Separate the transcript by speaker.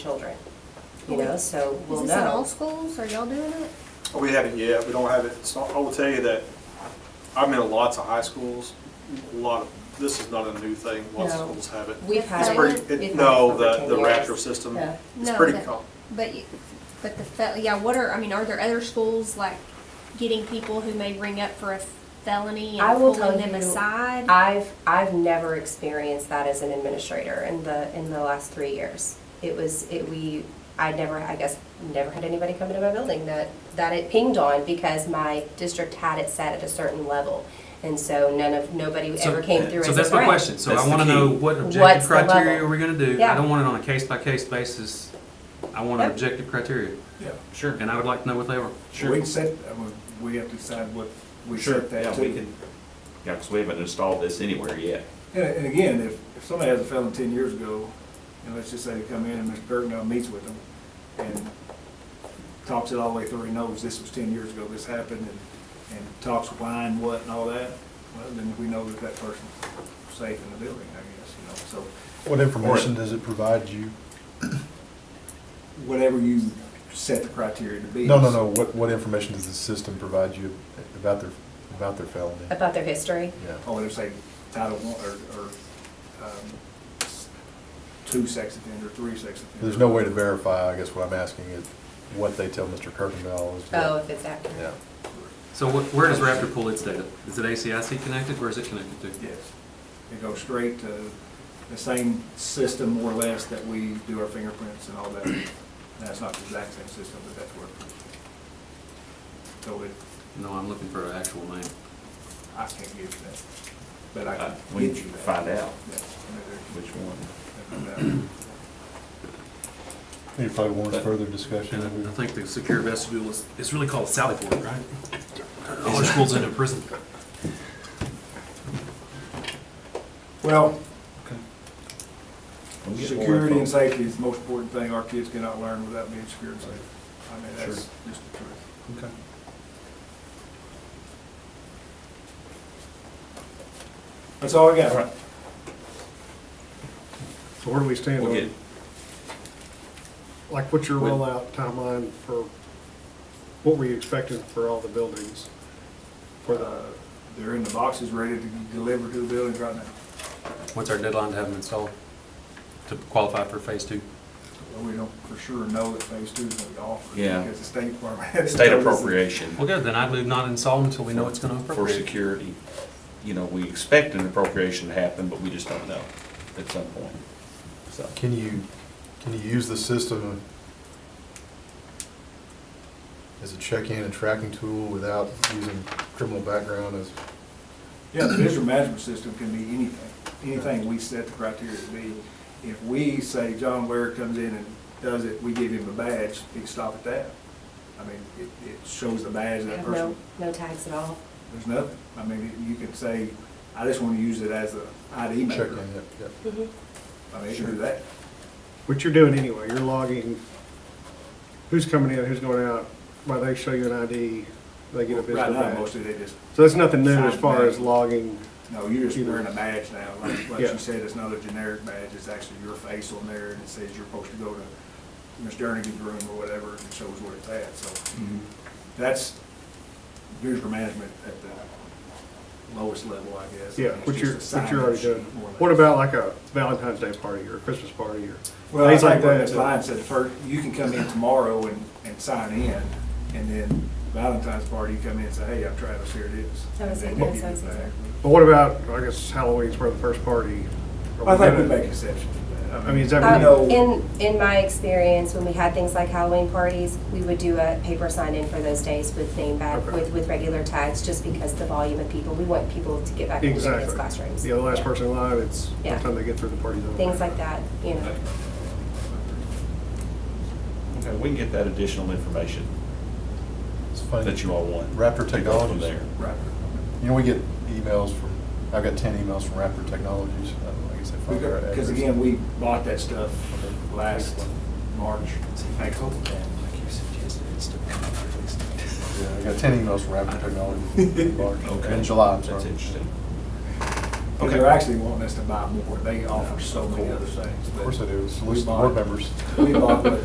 Speaker 1: children, you know, so we'll
Speaker 2: Is this in all
Speaker 1: know.
Speaker 2: schools? Are y'all doing it?
Speaker 3: We haven't yet, we don't have it, so I will tell you that I'm in lots of high schools, a lot of, this is not a new thing, lots
Speaker 1: No.
Speaker 3: of schools have it.
Speaker 1: We've had
Speaker 3: It's
Speaker 1: it.
Speaker 3: pretty-
Speaker 1: We've had it
Speaker 3: No,
Speaker 1: for
Speaker 3: the,
Speaker 1: 10
Speaker 3: the
Speaker 1: years.
Speaker 3: Raptor system,
Speaker 1: Yeah.
Speaker 3: it's
Speaker 2: No,
Speaker 3: pretty
Speaker 2: but-
Speaker 3: common.
Speaker 2: But, you- but the, fel- yeah, what are, I mean, are there other schools like getting people who may ring up for a felony
Speaker 1: I
Speaker 2: and
Speaker 1: will tell
Speaker 2: pulling them
Speaker 1: you,
Speaker 2: aside?
Speaker 1: I've, I've never experienced that as an administrator in the, in the last three years. It was, it, we, I never, I guess, never had anybody come into my building that, that it pinged on because my district had it set at a certain level. And so none of, nobody
Speaker 4: So-
Speaker 1: ever came through as a
Speaker 4: So that's my
Speaker 1: threat.
Speaker 4: question, so I
Speaker 5: That's the
Speaker 4: wanna know
Speaker 5: key.
Speaker 4: what
Speaker 1: What's
Speaker 4: objective
Speaker 1: the level?
Speaker 4: criteria are we gonna do?
Speaker 1: Yeah.
Speaker 4: I don't want it on a case-by-case basis, I want
Speaker 1: Yep.
Speaker 4: objective criteria,
Speaker 6: Yeah,
Speaker 5: Sure.
Speaker 4: and I would like to know what they are.
Speaker 6: we can set, I mean, we have to decide what we set that
Speaker 5: Yeah, we
Speaker 6: to.
Speaker 5: can, yeah, because we haven't installed this anywhere yet.
Speaker 6: And, and again, if, if somebody has a felon ten years ago, and let's just say they come in and Mr. Kirkendall meets with them and talks it all the way through, he knows this was ten years ago, this happened, and, and talks why and what and all that, well, then we know that that person's safe in the building, I guess, you know, so
Speaker 7: What information does it provide you?
Speaker 6: whatever you set the criteria to be.
Speaker 7: No, no, no, what, what information does the system provide you about their, about their felony?
Speaker 1: About their history.
Speaker 7: Yeah.
Speaker 6: or there's a Oh, Title One, or, or, um, s- two sex offender, three sex offender.
Speaker 7: There's no way to verify, I guess what I'm asking is what they tell Mr. Kirkendall is. what-
Speaker 1: Oh, if it's accurate.
Speaker 7: Yeah.
Speaker 4: So wh- where does Raptor pull its data? Is it ACIC connected, where is it connected to?
Speaker 6: Yes. It goes straight to the same system more or less that we do our fingerprints and all that. And That's not the exact same system, but that's where. So it,
Speaker 4: No, I'm looking for an actual name.
Speaker 6: I can't give you that, but I
Speaker 5: Uh,
Speaker 6: can
Speaker 5: We
Speaker 6: get
Speaker 5: need to
Speaker 6: you that.
Speaker 5: find out
Speaker 6: Yeah, I
Speaker 5: which one.
Speaker 6: mean, there- there's no doubt.
Speaker 7: It probably warrants further discussion.
Speaker 4: And I- I think the secure vestibule is, it's really called Sally Port, right? All our schools into prison.
Speaker 6: Well,
Speaker 5: We'll get more
Speaker 6: Security and
Speaker 5: info.
Speaker 6: safety is the most important thing. Our kids cannot learn without being secure and safe. I mean, that's just the truth.
Speaker 7: Okay.
Speaker 6: That's all I got.
Speaker 8: So where do we stand
Speaker 5: We'll
Speaker 8: on,
Speaker 5: get,
Speaker 8: like, what's your
Speaker 5: We'll-
Speaker 8: rollout timeline for, what were you expecting for all the buildings? For
Speaker 6: Uh,
Speaker 8: the,
Speaker 6: They're in the boxes, ready to be delivered to the buildings right now.
Speaker 4: What's our deadline to have them installed, to qualify for phase two?
Speaker 6: But We don't for sure know that phase two is going to be offered.
Speaker 5: Yeah.
Speaker 6: Because the state department has.
Speaker 5: state
Speaker 6: told us-
Speaker 5: appropriation
Speaker 4: Well, good, then I'd move not install until we know it's gonna
Speaker 5: for
Speaker 4: appropriate.
Speaker 5: security. You know, we expect an appropriation to happen, but we just don't know at some point. So,
Speaker 7: Can you, can you use the system as a check-in and tracking tool without using criminal background as?
Speaker 6: Yeah, the visitor management system can be anything, anything we set the criteria to be. If we say John Ware comes in and does it, we give him a badge, he can stop at that. I mean, it, it shows the badge of
Speaker 1: I
Speaker 6: that
Speaker 1: have
Speaker 6: person.
Speaker 1: no, no tags at all.
Speaker 6: There's nothing. I mean, you can say, I just want to use it as a ID
Speaker 7: Check-in,
Speaker 6: maker.
Speaker 7: yeah, yeah.
Speaker 6: I mean, you can do that.
Speaker 8: what you're doing anyway, you're logging who's coming in, who's going out, Why they show you an ID, they get a
Speaker 6: Right
Speaker 8: visitor
Speaker 6: now,
Speaker 8: badge.
Speaker 6: mostly they just,
Speaker 8: So that's nothing new as far as logging,
Speaker 6: no, you're just wearing a badge now. Like, like
Speaker 8: Yeah.
Speaker 6: you said, it's not a generic badge. It's actually your face on there and it says you're supposed to go to Ms. Jernigan's room or whatever and it shows where it's at. So
Speaker 8: Mm-hmm.
Speaker 6: that's visitor management at the lowest level, I guess.
Speaker 8: yeah,
Speaker 6: It's
Speaker 8: what you're,
Speaker 6: just a
Speaker 8: what you're already
Speaker 6: signage
Speaker 8: doing.
Speaker 6: more or less.
Speaker 8: What about like a Valentine's Day party or a Christmas party or
Speaker 6: Well, I
Speaker 8: things like
Speaker 6: think what
Speaker 8: that?
Speaker 6: Ms. Lyons said first, you can come in tomorrow and, and sign in, and then Valentine's party, you come in and say, hey, I'm Travis, here it is.
Speaker 1: I was
Speaker 6: And
Speaker 1: thinking
Speaker 6: then you
Speaker 1: that
Speaker 6: give
Speaker 1: sounds
Speaker 6: it back.
Speaker 8: But what about, I guess Halloween's where the first party? Are
Speaker 6: I think
Speaker 8: gonna-
Speaker 6: we make exceptions to that.
Speaker 8: I mean, is that
Speaker 6: We
Speaker 8: what
Speaker 1: Um,
Speaker 8: you-
Speaker 6: know-
Speaker 1: In, in my experience, when we had things like Halloween parties, we would do a paper sign-in for those days with name badge,
Speaker 8: Okay.
Speaker 1: with, with regular tags, just because the volume of people, we want people to get back into their kids'
Speaker 8: Exactly.
Speaker 1: classrooms.
Speaker 8: Yeah, the last person in line, it's by
Speaker 1: Yeah.
Speaker 8: the time they get through the party's over.
Speaker 1: Things like that, you know.
Speaker 5: okay, we can get that additional information
Speaker 7: It's funny.
Speaker 5: that you all want.
Speaker 7: Raptor
Speaker 5: Take off from
Speaker 7: Technologies.
Speaker 5: there.
Speaker 6: Right.
Speaker 7: You know, we get emails from, I've got ten emails from Raptor Technologies. I don't know, I guess I found the right
Speaker 6: Because
Speaker 7: address.
Speaker 6: again, we bought that stuff last March, April.
Speaker 7: Yeah, I got ten emails from Raptor Technologies. in March.
Speaker 5: Okay.
Speaker 7: In July, I'm
Speaker 5: That's
Speaker 7: sorry.
Speaker 5: interesting.
Speaker 6: Because they're actually wanting us to buy more. They offer so many other things.
Speaker 7: Of course I do, it's at least the board members.
Speaker 6: We bought, what,